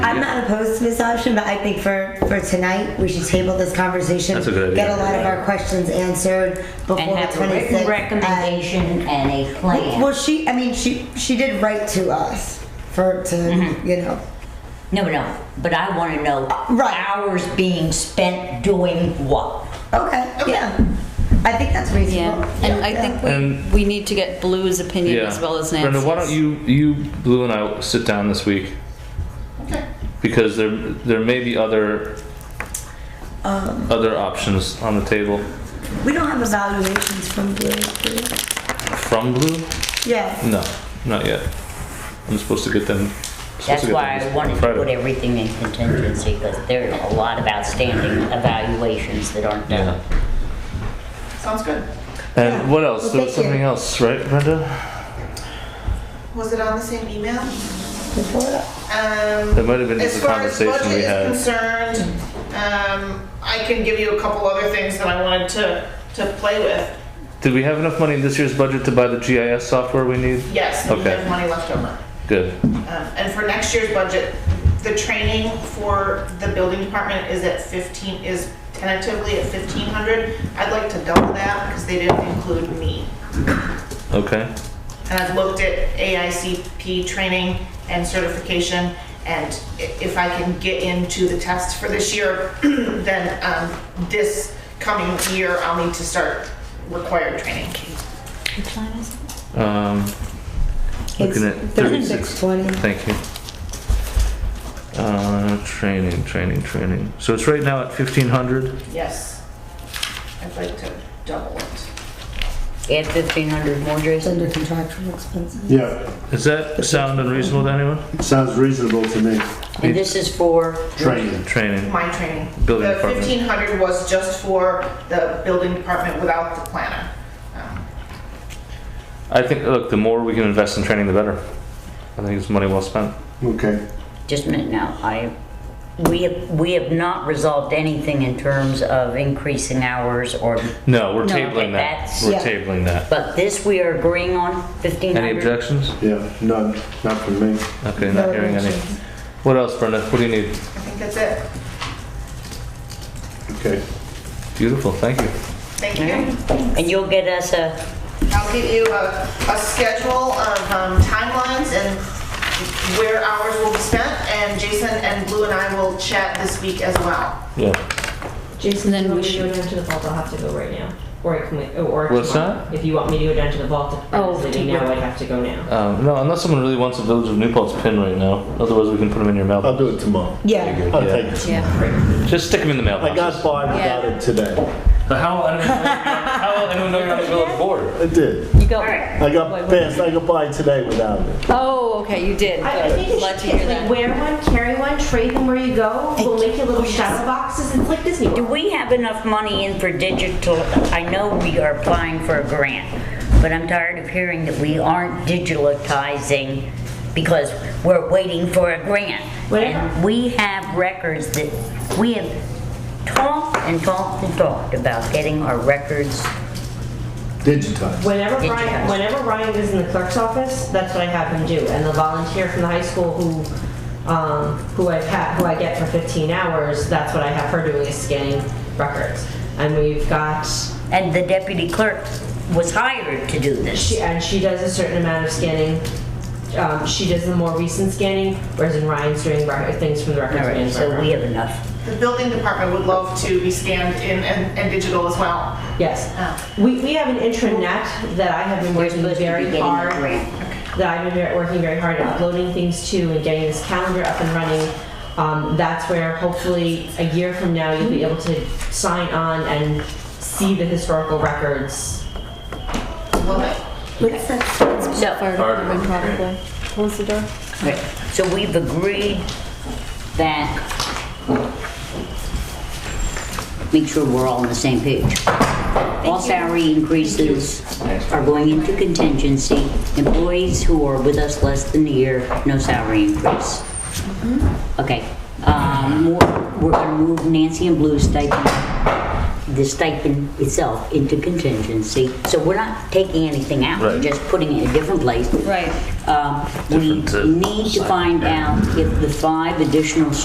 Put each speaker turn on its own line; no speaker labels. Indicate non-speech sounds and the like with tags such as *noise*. I'm not opposed to this option, but I think for, for tonight, we should table this conversation.
That's a good
Get a
idea.
lot of our questions answered before
And
the
have a written
26th.
recommendation and a plan.
Well, she, I mean, she, she did write to us for, to, you know,
No, no, but I want to know
right.
hours being spent doing what?
okay, yeah. I think that's reasonable.
Yeah, and I think
And-
we, we need to get Blue's opinion as well as Nancy's.
Brenda, why don't you, you, Blue, and I sit down this week? Okay. Because there, there may be other, other options on the table
Um, We don't have evaluations from Blue. do we?
from Blue.
Yeah.
No, not yet. I'm supposed to get them. supposed
That's
to get
why
them
I wanted to
Friday.
put everything in contingency because there are a lot of outstanding evaluations that aren't
Yeah.
done.
Sounds good.
And what else?
Well,
there
thank
was
you.
something else, right, Brenda?
Was it on the same email?
Before that.
Um,
There might have been
as
just a
far as
conversation we
budget
had.
is concerned, um, I can give you a couple other things that I wanted to to play with.
Did we have enough money in this year's budget to buy the GIS software we need?
Yes, we
Okay.
have money left over.
Good.
Um, and for next year's budget, the training for the building department is at fifteen is tentatively at fifteen hundred. I'd like to double that because they didn't include me.
Okay.
And I've looked at AICP training and certification, and i- if I can get into the test for this year, *clears throat* then um, this coming year, I'll need to start required training.
Um, looking at
It's
36.
3620.
Thank you. Uh, training, training, training. So it's right now at 1500.
Yes. I'd like to double it.
Add fifteen hundred more,
It's
Jason?
under contractual expenses.
Yeah,
Does that sound unreasonable to anyone?
sounds reasonable to me.
And this is for,
Training.
Training.
My training.
Building
The
department.
1500 was just for the building department without the planner. Um,
I think, look, the more we can invest in training, the better. I think it's money well spent.
Okay.
just a minute now, I, we have, we have not resolved anything in terms of increasing hours or,
No, we're
No,
tabling that.
okay, that's-
We're
Yeah.
tabling that.
but this we are agreeing on, fifteen
Any
hundred?
objections?
Yeah, none, not from me.
Okay, not hearing any. What else, Brenda? What do you need?
I think that's it.
Okay.
Beautiful, thank you.
Thank you.
And you'll get us a,
I'll get you a, a schedule of um, timelines and where hours will be spent, and Jason and Blue and I will chat this week as well.
Yeah.
Jason,
Then
if you
we
want me to
should-
go down to the vault, I'll have to go right now. Or I can wait, oh, or
What's
tomorrow.
that?
If you want me to go down to the vault,
Oh,
if you
to-
now, I'd have to go now.
Um, no, unless someone really wants a Village of New Paltz pin right now. Otherwise, we can put them in your mailbox.
I'll do it tomorrow.
Yeah.
I'll
Yeah.
take it.
Yeah.
Just stick them in the mailbox.
I got by without it today.
But how, I don't know, how will anyone know you're on the village board?
I did.
You go.
I got past, I got by today without it.
Oh, okay, you did.
I, I think you
Good.
should
Glad to hear
take, like,
that.
wear one, carry one, trade them where you go. We'll make you little shadow boxes. It's like Disney
Do
World.
we have enough money in for digital? I know we are applying for a grant, but I'm tired of hearing that we aren't digitalizing because we're waiting for a grant. And we have records that, we have talked and talked and talked about getting our records.
Digitized.
Whenever
Did you
Ryan,
guys-
whenever Ryan is in the clerk's office, that's what I have him do. And the volunteer from the high school who, um, who I've had, who I get for 15 hours, that's what I have her doing is scanning records. And we've got,
And the deputy clerk was hired to do
she,
this.
and she does a certain amount of scanning. Um, she does the more recent scanning, whereas in Ryan's doing rec- things from the records.
All right,
management
so
room.
we have enough.
The building department would love to be scanned in and, and digital as well.
Yes.
Oh.
We, we have an intranet that I have been working
supposed to be
very
getting a
hard,
grant.
that I've been very- working very hard at uploading things to and getting this calendar up and running. Um, that's where hopefully a year from now, you'll be able to sign on and see the historical records.
Love it.
What's that?
So,
Fire department probably. Close the door.
Okay, So we've agreed that, make sure we're all on the same page. All salary increases are going into contingency. Employees who are with us less than a year, no salary increase. Okay, um, more- we're gonna move Nancy and Blue's stipend the stipend itself into contingency. So we're not taking anything out, we're
Right.
just putting it in a different place.
Right.
Um, We
Different, uh,
need to find out if the five additional